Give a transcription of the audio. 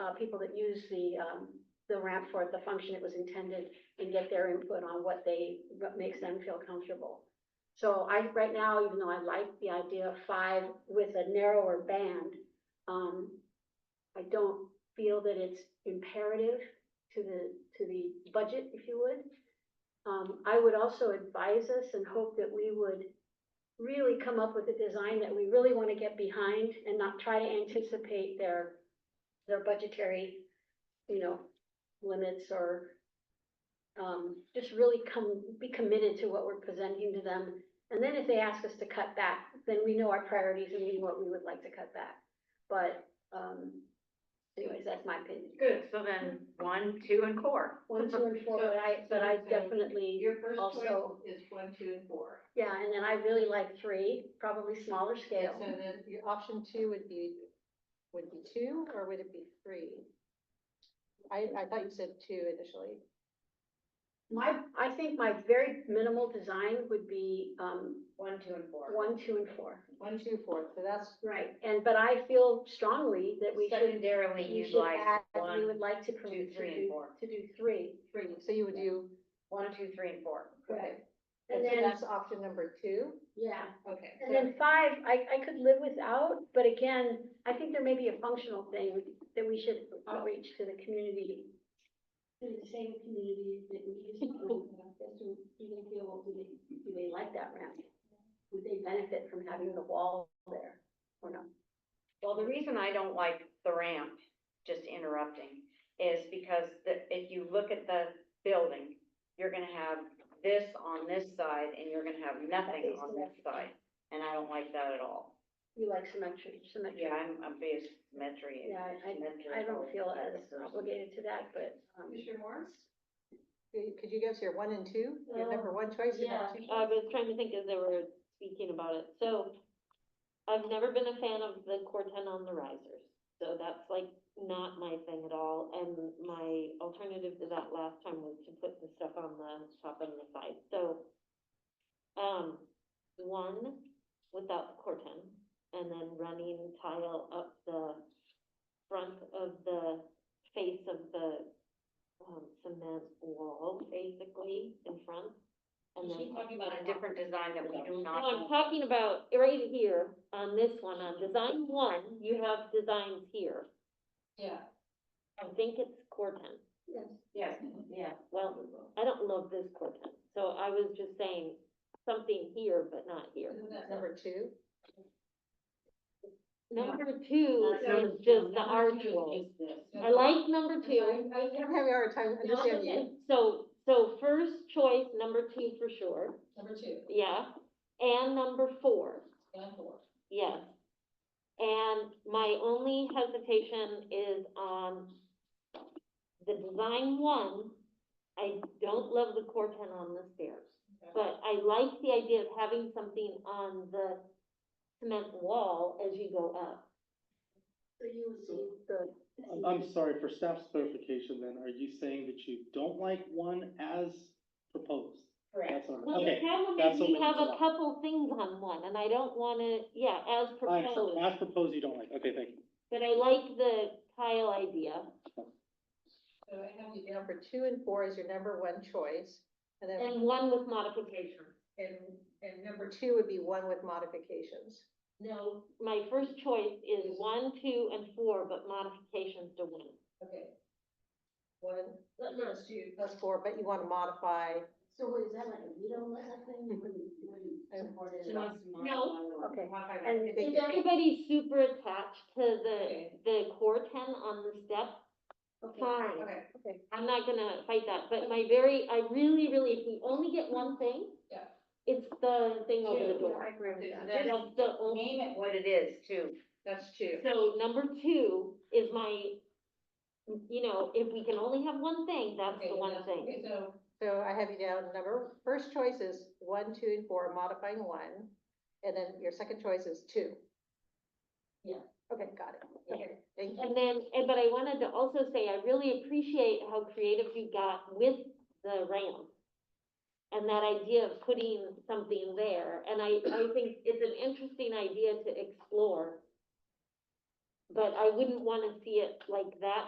uh, people that use the, um, the ramp for the function it was intended and get their input on what they, what makes them feel comfortable. So I, right now, even though I like the idea of five with a narrower band, um, I don't feel that it's imperative to the, to the budget, if you would. Um, I would also advise us and hope that we would really come up with a design that we really want to get behind and not try to anticipate their, their budgetary, you know, limits or um, just really come, be committed to what we're presenting to them. And then if they ask us to cut back, then we know our priorities and we know what we would like to cut back. But, um, anyways, that's my opinion. Good, so then one, two, and core. One, two, and four, but I, but I definitely. Your first Also- choice is one, two, and four. Yeah, and then I really like three, probably smaller And scale. so then, you- Your option two would be, would be two, or would it be three? I, I thought you said two initially. My, I think my very minimal design would be, um, one, two, and four. one, two, and four. One, two, four, so that's, Right. And, but I feel strongly that we should, Secondarily, we you'd should like add, we one, would like to. pro- two, to three, do- and four. To do three. three, so you would do, One, two, three, and four. Right. and And so then, that's option number two. yeah, Okay. and then five, I, I could live without, but again, I think there may be a functional thing that we should outreach to the community. To the same community that we used to, as to, do they feel, well, do they, do they like that ramp? Would they benefit from having the wall there or not? Well, the reason I don't like the ramp, just interrupting, is because the, if you look at the building, you're gonna have this on this side and you're gonna have nothing on this side. And I don't like that at all. You like symmetry, symmetry. Yeah, I'm a big symmetry. Yeah, I, I don't feel as obligated to that, but, um, Commissioner Morris? Could could you give us your one and two, your number one choice and Yeah, number two? I was trying to think as they were speaking about it, so I've never been a fan of the Corten on the risers. So that's like not my thing at all, and my alternative to that last time was to put the stuff on the top and the side, so. Um, one without the Corten, and then running tile up the front of the face of the um, cement wall, basically, in front. And then. She's talking about A different design that we do No, I'm not, talking about right here on this one, on design one, you have designs here. Yeah. I think it's Corten. yes. yes, yeah. Well, I don't love this Corten, so I was just saying something here, but not here. Isn't that number- Number two? Number two That's is just the archway. I like number two. I- I'm having a hard time understanding you. So, so first choice, number two for sure, Number two, yeah, and number four. and four. Yes. And my only hesitation is on the design one. I don't love the corten on the stairs, but I like the idea of having something on the cement wall as you go up. So you would see the. I'm, I'm sorry, for staff's clarification then, are you saying that you don't like one as proposed? That's all right. Well, the Okay, problem that's is what we we have a want. couple things on one, and I don't wanna, yeah, as I understand. proposed, as proposed, you don't like, okay, thank you. but I like the tile idea. So I have you down Number two and four is your number one choice, and then And one with modification. And, and number two would be one with modifications. No, my first choice is one, two, and four, but modifications to one. okay. One, Let Number two. that's four, but you want to modify. So what, is that like a veto letter thing? What do you- what do you support it? No. Okay. Modify that. And Is everybody super attached to the, the core ten on the step? Fine, Okay, I'm not gonna fight that, but my very, I really, really, if we only get one thing. Yeah. It's the thing over the I door. agree with that. Then- That's the only, Name it what it is too. that's two. so number two is my, you know, if we can only have one thing, that's Okay, the one that's- thing. okay, So, So I have you down, number, first choice is one, two, and four, modifying one. And then your second choice is two. Yeah. Okay, got it. Okay, thank you. And then, and, but I wanted to also say, I really appreciate how creative you got with the ramp. And that idea of putting something there, and I, I think it's an interesting idea to explore. But I wouldn't wanna see it like that